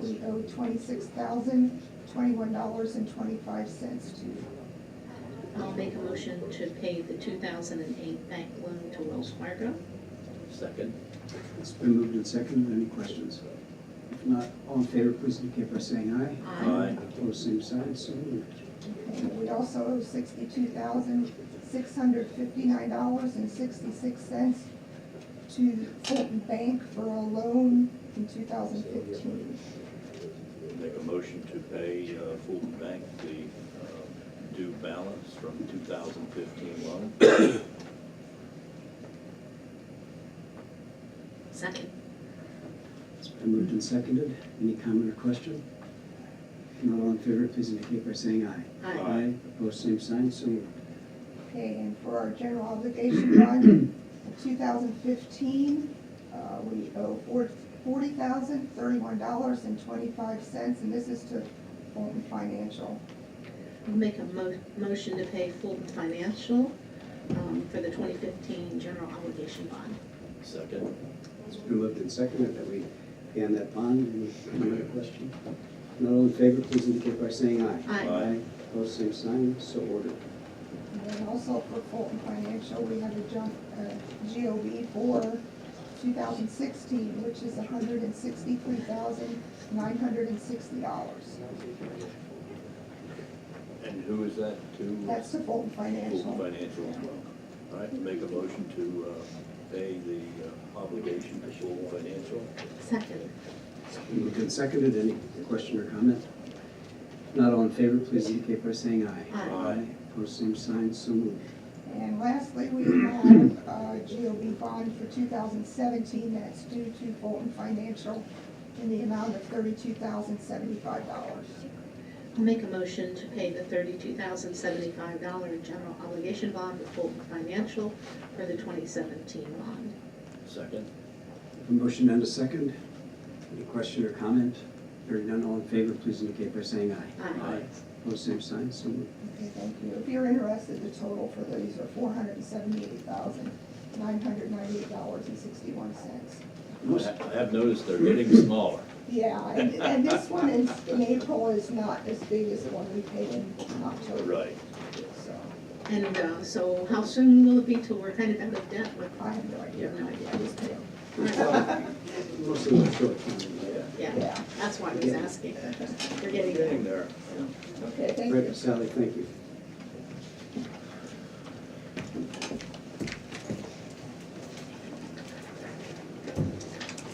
we owe twenty-six thousand, twenty-one dollars and twenty-five cents to. I'll make a motion to pay the two thousand and eight bank loan to Wells Fargo. Second. It's been moved and seconded. Any questions? If not, all in favor, please indicate by saying aye. Aye. Opposed, same sign, so moved. And we also owe sixty-two thousand, six hundred fifty-nine dollars and sixty-six cents to Fulton Bank for a loan in two thousand fifteen. Make a motion to pay uh, Fulton Bank the uh, due balance from 2015 loan. Second. It's been moved and seconded. Any comment or question? If not, all in favor, please indicate by saying aye. Aye. Opposed, same sign, so moved. Okay, and for our general obligation bond, two thousand fifteen, uh, we owe forty thousand, thirty-one dollars and twenty-five cents, and this is to Fulton Financial. I'll make a mo- motion to pay Fulton Financial, um, for the twenty fifteen general obligation bond. Second. It's been moved and seconded that we pay on that bond. Any comment or question? If not, all in favor, please indicate by saying aye. Aye. Aye. Opposed, same sign, so ordered. And then also for Fulton Financial, we have a jump, uh, GOB for two thousand sixteen, which is hundred and sixty-three thousand, nine hundred and sixty dollars. And who is that to? That's to Fulton Fulton Financial. Financial as well. All right, make a motion to uh, pay the uh, obligation to Fulton Financial. Second. It's been moved and seconded. Any question or comment? If not, all in favor, please indicate by saying aye. Aye. Opposed, same sign, so moved. And lastly, we uh, have a GOB bond for two thousand seventeen that's due to Fulton Financial in the amount of thirty-two thousand, seventy-five dollars. I'll make a motion to pay the thirty-two thousand seventy-five dollar general obligation bond to Fulton Financial for the twenty seventeen bond. Second. A motion and a second. Any question or comment? Hearing none, all in favor, please indicate by saying aye. Aye. Opposed, same sign, so moved. Okay, thank you. If you're interested, the total for these are four hundred and seventy-eight thousand, nine hundred ninety-eight dollars and sixty-one cents. I ha- I have noticed they're getting smaller. Yeah, and, and this one in, in April is not as big as the one we paid in October, Right. so And, uh, so how soon will it be till we're kind of out of debt with, I have no idea. no idea. I just paid, Most of them are short term, Yeah. Yeah, yeah. that's why I was asking. We're getting there. Getting there. Okay, thank you. Right, Sally, thank you.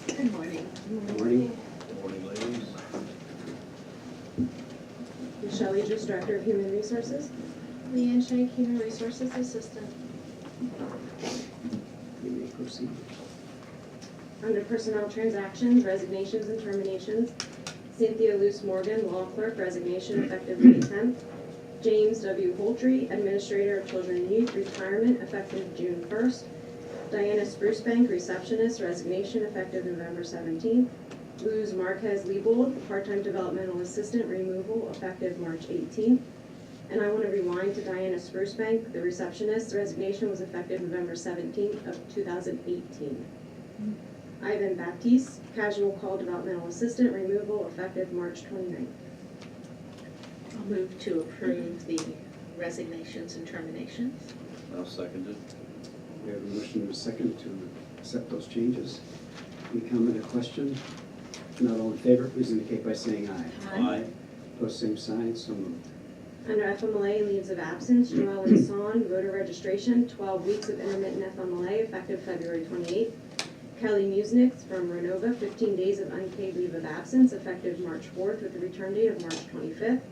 Good morning. Good Morning. Morning, ladies. Michelle Idris, Director of Human Resources. Leanne Shank, Human Resources Assistant. You may proceed. Under Personnel Transactions, Resignations and Terminations, Cynthia Luce Morgan, Law Clerk, resignation effective May 10th. James W. Holtry, Administrator of Children and Youth, retirement effective June 1st. Diana Sprucebank, Receptionist, resignation effective November 17th. Luz Marquez Liebold, Part-Time Developmental Assistant, removal effective March 18th. And I want to rewind to Diana Sprucebank, the receptionist, resignation was effective November 17th of 2018. Ivan Baptiste, casual call developmental assistant, removal effective March 29th. I'll move to approve the resignations and terminations. Now seconded. We have a motion and a second to accept those changes. Any comment or question? If not all in favor, please indicate by saying aye. Aye. Opposed, same sign, so moved. Under FMLA leaves of absence, Joelle and Son, voter registration, 12 weeks of intermittent FMLA effective February 28th. Kelly Musnick from Renova, 15 days of unpaid leave of absence effective March 4th with a return date of March 25th.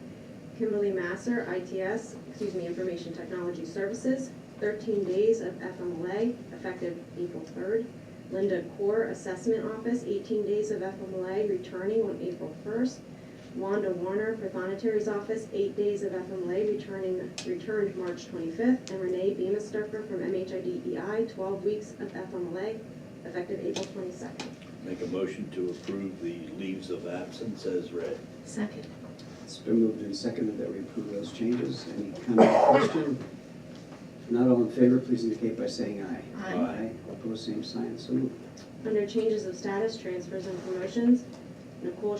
Kimberly Masser, ITS, excuse me, Information Technology Services, 13 days of FMLA effective April 3rd. Linda Core, Assessment Office, 18 days of FMLA returning on April 1st. Wanda Warner, Prothonotary's Office, eight days of FMLA, returning, returned March 25th. And Renee Beamistucker from MHIDEI, 12 E weeks of FMLA, effective April 22nd. Make a motion to approve the leaves of absence as read. Second. It's been moved and seconded that we approve those changes. Any comment or question? If not all in favor, please indicate by saying aye. Aye. Opposed, same sign, so moved. Under changes of status, transfers, and promotions, Nicole